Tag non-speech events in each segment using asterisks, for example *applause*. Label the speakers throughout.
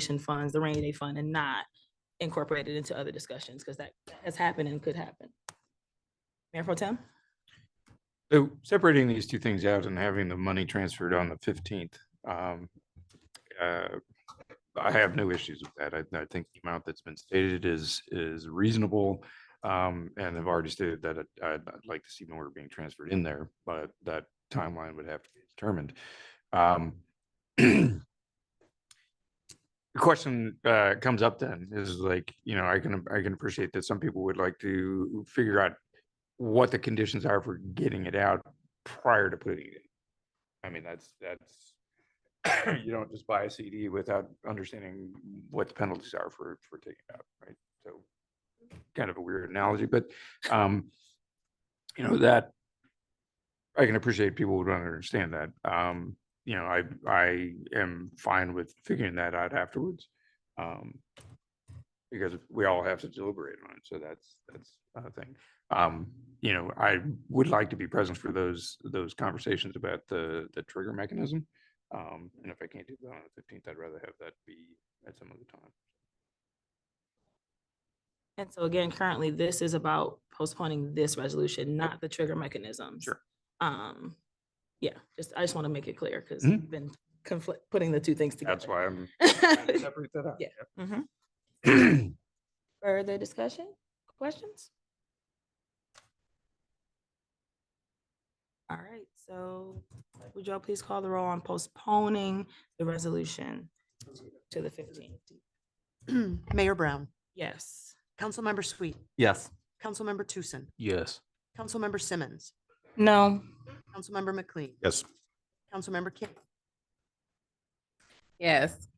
Speaker 1: stabilization funds, the rainy day fund, and not incorporated into other discussions, because that has happened and could happen. Mayor Pro Tem?
Speaker 2: So separating these two things out and having the money transferred on the fifteenth, um, uh, I have no issues with that. I, I think the amount that's been stated is, is reasonable. Um, and I've already stated that I- I'd, I'd like to see more being transferred in there, but that timeline would have to be determined. Um, *clears throat* The question, uh, comes up then is like, you know, I can, I can appreciate that some people would like to figure out what the conditions are for getting it out prior to putting it. in. I mean, that's, that's, *clears throat* you don't just buy a CD without understanding what the penalties are for, for taking it out, right? So kind of a weird analogy, but, um, you know, that I can appreciate people would want to understand that. Um, you know, I, I am fine with figuring that out afterwards. Um, because we all have to deliberate on it. So that's, that's a thing um, you know, I would like to be present for those, those conversations about the, the trigger mechanism. Um, and if I can't do that on the fifteenth, I'd rather have that be at some other time.
Speaker 1: And so again, currently, this is about postponing this resolution, not the trigger mechanisms.
Speaker 2: Sure.
Speaker 1: Um, yeah, just, I just want to make it clear, because
Speaker 2: Mhm.
Speaker 1: we've been conflict, putting the two things together.
Speaker 2: That's why I'm.
Speaker 1: *laughs*
Speaker 2: trying to
Speaker 1: why.
Speaker 2: separate that out.
Speaker 1: Yeah. Mhm.
Speaker 2: *clears throat* Yeah.
Speaker 1: Further discussion, questions? All right, so would y'all please call the roll on postponing the resolution to the fifteenth?
Speaker 3: *clears throat* Mayor Brown,
Speaker 1: Yes.
Speaker 3: Councilmember Sweet,
Speaker 4: Yes.
Speaker 3: Councilmember Tucson,
Speaker 4: Yes.
Speaker 3: Councilmember Simmons,
Speaker 1: No.
Speaker 3: Councilmember McLean,
Speaker 4: Yes.
Speaker 3: Councilmember Kim,
Speaker 5: Yes.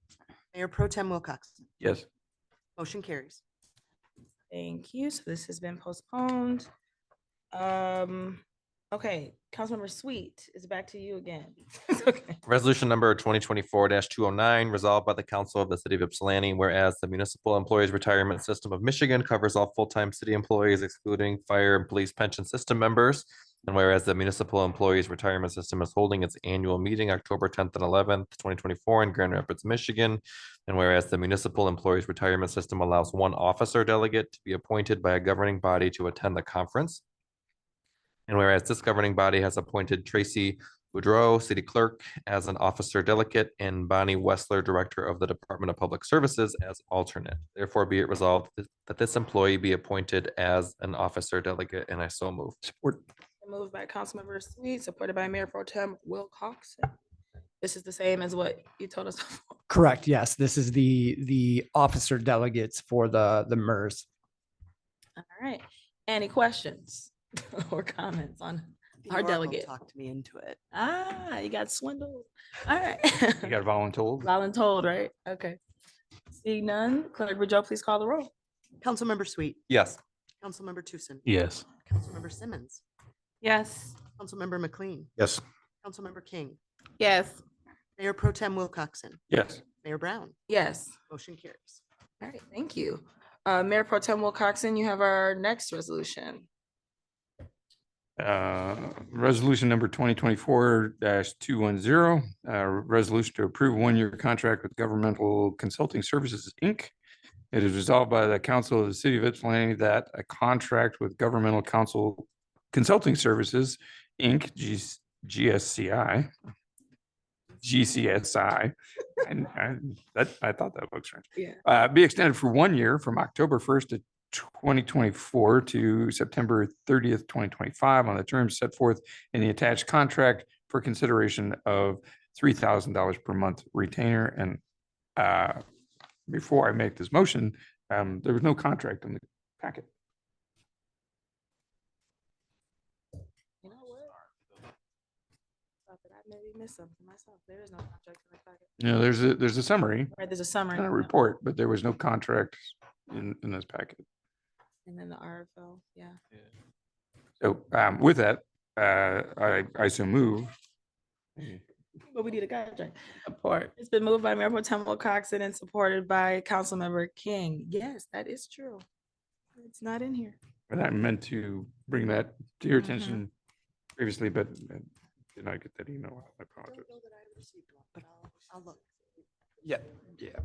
Speaker 3: Mayor Pro Tem Wilcoxen.
Speaker 2: Yes.
Speaker 3: Motion carries.
Speaker 1: Thank you. So this has been postponed. Um, okay, Councilmember Sweet is back to you again. Okay.
Speaker 4: Resolution number twenty twenty-four two oh nine, resolved by the council of the city of Ypsilanti, whereas the municipal employees retirement system of Michigan covers all full-time city employees excluding fire and police pension system members. And whereas the municipal employees retirement system is holding its annual meeting October tenth and eleventh, twenty twenty-four in Grand Rapids, Michigan. And whereas the municipal employees retirement system allows one officer delegate to be appointed by a governing body to attend the conference. And whereas this governing body has appointed Tracy Boudreau, City Clerk, as an Officer Delegate, and Bonnie Wessler, Director of the Department of Public Services, as alternate. Therefore, be it resolved th- that this employee be appointed as an Officer Delegate, and I so move.
Speaker 2: Support.
Speaker 1: Moved by Councilmember Sweet, supported by Mayor Pro Tem Wilcoxen. This is the same as what you told us. *laughs* before.
Speaker 6: Correct. Yes, this is the the officer delegates for the the MERS.
Speaker 1: All right. Any questions *laughs* or commenents on?
Speaker 3: The
Speaker 1: Our
Speaker 3: Oracle
Speaker 1: delegate.
Speaker 3: Talked me into it.
Speaker 1: Ah, you got swindled. All right. *laughs*
Speaker 2: You got voluntold?
Speaker 1: Voluntold, right? Okay. Seeing none, clerk, would y'all please call the roll?
Speaker 3: Councilmember Sweet,
Speaker 4: Yes.
Speaker 3: Councilmember Tucson,
Speaker 4: Yes.
Speaker 3: Councilmember Simmons,
Speaker 1: Yes.
Speaker 3: Councilmember McLean,
Speaker 4: Yes.
Speaker 3: Councilmember King,
Speaker 5: Yes.
Speaker 3: Mayor Pro Tem Wilcoxen,
Speaker 2: Yes.
Speaker 3: Mayor Brown.
Speaker 1: Yes.
Speaker 3: Motion carries.
Speaker 1: All right, thank you. Uh, Mayor Pro Tem Wilcoxen, you have our next resolution.
Speaker 2: Uh, Resolution number twenty twenty-four two one zero, uh, resolution to approve one-year contract with Governmental Consulting Services, Inc. It is resolved by the Council of the City of Ypsilanti that a contract with Governmental Council Consulting Services, Inc., G- GSCI, GCSI, and and that, I thought that looked strange.
Speaker 1: Yeah.
Speaker 2: Uh, be extended for one year from October first to 2024 to September 30th, 2025, on the terms set forth in the attached contract for consideration of $3,000 per month retainer. And uh, before I make this motion, um, there was no contract in the packet.
Speaker 1: You know what? Thought that I maybe missed something myself. There is no contract in the packet.
Speaker 2: You know, there's a, there's a summary
Speaker 1: Right, there's a
Speaker 2: and a
Speaker 1: summary
Speaker 2: report, but there was no contract in, in this packet.
Speaker 1: and then the RFO, yeah.
Speaker 2: So um, with that, uh, I, I so move.
Speaker 1: But we need a contract. Support. It's been moved by Mayor Pro Tem Wilcoxen and supported by Councilmember King. Yes, that is true. It's not in here.
Speaker 2: And I meant to bring that to your
Speaker 1: Mhm.
Speaker 2: attention previously, but uh, did not get that email. I apologize.
Speaker 3: But I'll, I'll look.
Speaker 2: Yeah, yeah.